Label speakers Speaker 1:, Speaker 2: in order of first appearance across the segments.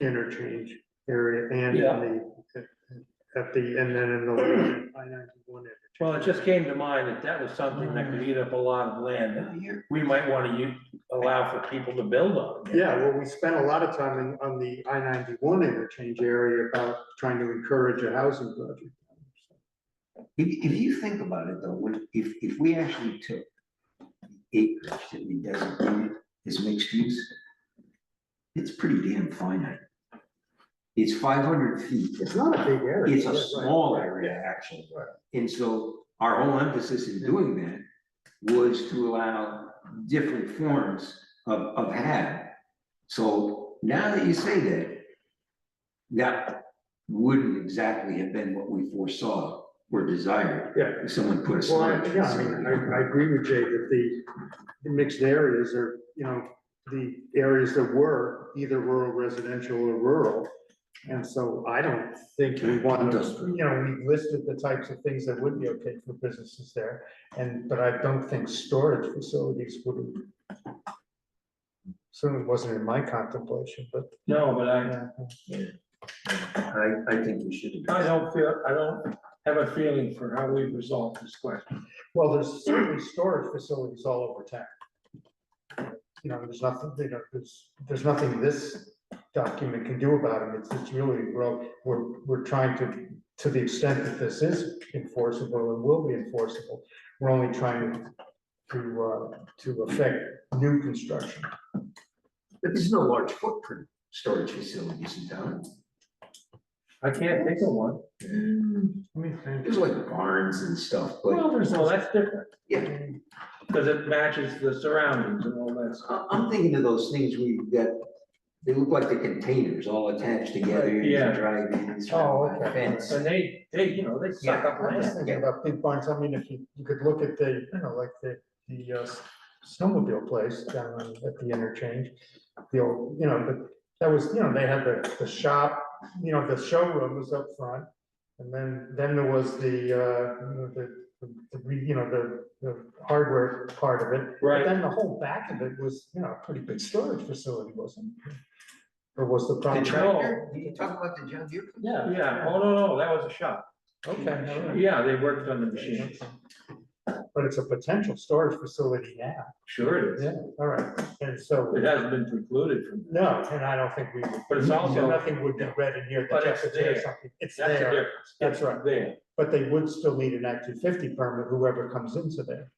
Speaker 1: interchange area and in the, at the, and then in the I ninety-one.
Speaker 2: Well, it just came to mind that that was something that could eat up a lot of land that we might want to allow for people to build on.
Speaker 1: Yeah, well, we spent a lot of time in, on the I ninety-one interchange area about trying to encourage a housing project.
Speaker 3: If, if you think about it though, what, if, if we actually took the acreage that we designated as mixed use, it's pretty damn finite. It's five hundred feet.
Speaker 1: It's not a big area.
Speaker 3: It's a
Speaker 1: yeah, right.
Speaker 3: small area, actually. And so our whole emphasis in doing that was to allow different forms of, of hab. So now that you say that, that wouldn't exactly have been what we foresaw or desired.
Speaker 1: Yeah.
Speaker 3: If someone put a
Speaker 1: Well,
Speaker 3: slide.
Speaker 1: I- yeah, I mean, I, I agree with Jay that the the mixed areas are, you know, the areas that were either rural residential or rural. And so I don't think we want to, you know, we listed the types of things that would be okay for businesses there. And, but I don't think storage facilities would. Certainly wasn't in my contemplation, but. uh,
Speaker 2: No, but I,
Speaker 1: yeah.
Speaker 3: I, I think we should.
Speaker 2: I don't feel, I don't have a feeling for how we've resolved this question.
Speaker 1: Well, there's certainly storage facilities all over town. You know, there's nothing, you know, there's, there's nothing this document can do about it. It's, it's really, we're, we're, we're trying to, to the extent that this is enforceable and will be enforceable, we're only trying to, uh, to affect new construction.
Speaker 3: But there's no large footprint storage facilities in town.
Speaker 2: I can't think of one.
Speaker 1: I mean,
Speaker 3: There's like barns and stuff, but
Speaker 2: Well, there's. Well, that's different,
Speaker 3: yeah.
Speaker 2: because it matches the surroundings and all that. stuff.
Speaker 3: I- I'm thinking of those things where you've got, they look like the containers all attached together. and you
Speaker 2: Yeah.
Speaker 3: Drive in. it's
Speaker 1: Oh,
Speaker 3: a
Speaker 1: okay.
Speaker 3: fence.
Speaker 2: And they, they, you know, they suck up
Speaker 1: I was
Speaker 2: land.
Speaker 1: thinking about big barns. I mean, if you, you could look at the, you know, like the, the uh, snowmobile place down on- at the interchange. The old, you know, but that was, you know, they had the, the shop, you know, the showroom was up front. And then, then there was the, uh, you know, the, the, re- you know, the, the hardware part of it. But
Speaker 2: Right,
Speaker 1: then the whole back of it was, you know, a pretty big storage facility, wasn't it? Or was the
Speaker 3: The
Speaker 1: property?
Speaker 3: tractor, you talking about the John Deere? company?
Speaker 1: Yeah.
Speaker 2: yeah, oh, no, no, that was a shop.
Speaker 1: Okay. all right.
Speaker 2: Yeah, they worked on the machine.
Speaker 1: But it's a potential storage facility now.
Speaker 2: Sure it is.
Speaker 1: Yeah, all right, and so,
Speaker 2: It hasn't been precluded from,
Speaker 1: no, and I don't think we would.
Speaker 2: But it's also-
Speaker 1: Nothing would be read in here that
Speaker 2: But it's
Speaker 1: just says
Speaker 2: there.
Speaker 1: something. It's
Speaker 2: that's the
Speaker 1: there,
Speaker 2: difference.
Speaker 1: That's right.
Speaker 2: There,
Speaker 1: but they would still need an Act two fifty permit, whoever comes into there.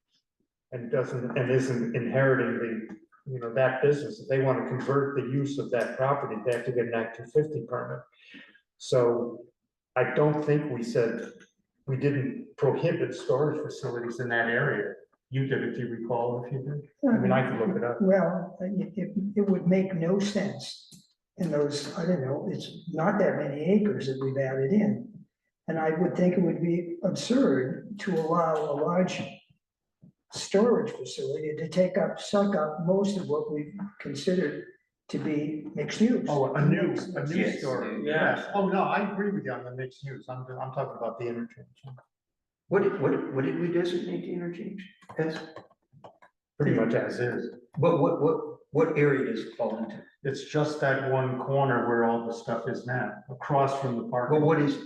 Speaker 1: And doesn't, and isn't inheriting the, you know, that business. If they want to convert the use of that property, they have to get an Act two fifty permit. So I don't think we said, we didn't prohibit storage facilities in that area. You did, if you recall, if you did. I mean, I could look it up.
Speaker 4: Well, I- it, it- it would make no sense in those, I don't know, it's not that many acres that we've added in. And I would think it would be absurd to allow a large storage facility to take up, suck up most of what we've considered to be mixed use.
Speaker 1: Oh, a new, a new
Speaker 3: Yes.
Speaker 1: story.
Speaker 2: Yeah.
Speaker 1: Yes. Oh, no, I agree with you on the mixed use. I'm, I'm talking about the interchange.
Speaker 3: What did, what, what did we designate the interchange as?
Speaker 1: Pretty much as is.
Speaker 3: But what, what, what area does it fall into?
Speaker 1: It's just that one corner where all the stuff is now, across from the park.
Speaker 3: Well, what is,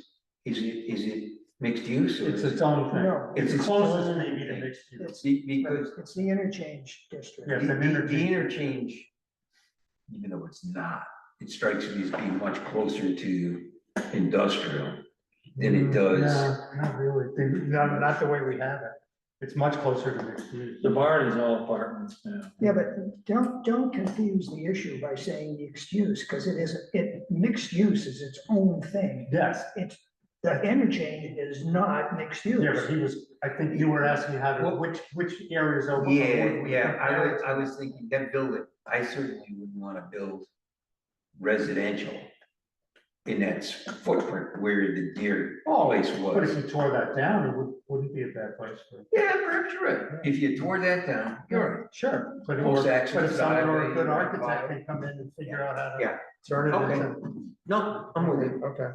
Speaker 3: is it, is it mixed use or?
Speaker 1: It's
Speaker 3: is it-
Speaker 1: its own thing.
Speaker 4: No,
Speaker 3: It's
Speaker 1: It's
Speaker 3: its
Speaker 1: closest
Speaker 3: own
Speaker 1: maybe to
Speaker 3: thing.
Speaker 1: mixed use.
Speaker 4: it's,
Speaker 3: Be- Because
Speaker 4: it's the interchange district.
Speaker 1: Yeah. Yes,
Speaker 3: The,
Speaker 1: an
Speaker 3: the- the
Speaker 1: interchange.
Speaker 3: interchange, even though it's not, it strikes me as being much closer to industrial than it does.
Speaker 1: No, Mm, Not really. They- Not, not the way we have it. It's much closer to mixed use.
Speaker 2: the barn is all apartments now.
Speaker 4: Yeah, but don't, don't confuse the issue by saying the excuse, because it is, it, mixed use is its own thing.
Speaker 1: Yes,
Speaker 4: It's, the interchange is not mixed use.
Speaker 1: yeah, but he was, I think you were asking how to,
Speaker 3: Well-
Speaker 1: which, which areas over.
Speaker 3: Yeah, yeah, I was, I was thinking that building, I certainly wouldn't want to build residential in that s- footprint where the deer
Speaker 1: Oh,
Speaker 3: place
Speaker 1: But if
Speaker 3: was.
Speaker 1: you tore that down, it would, wouldn't be a bad place for.
Speaker 3: Yeah, perhaps you're right. If you tore that down, you're right.
Speaker 1: Sure. But
Speaker 3: Close
Speaker 1: or-
Speaker 3: access
Speaker 1: but if someone or a
Speaker 3: driveway,
Speaker 1: good
Speaker 3: you might
Speaker 1: architect
Speaker 3: buy
Speaker 1: can come in and figure out how to
Speaker 3: Yeah.
Speaker 1: turn it
Speaker 3: Okay.
Speaker 1: into.
Speaker 3: No, I'm with you.
Speaker 1: Okay.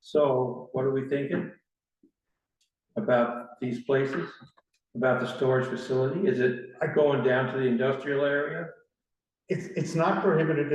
Speaker 2: So what are we thinking? About these places, about the storage facility? Is it going down to the industrial area?
Speaker 1: It's, it's not prohibited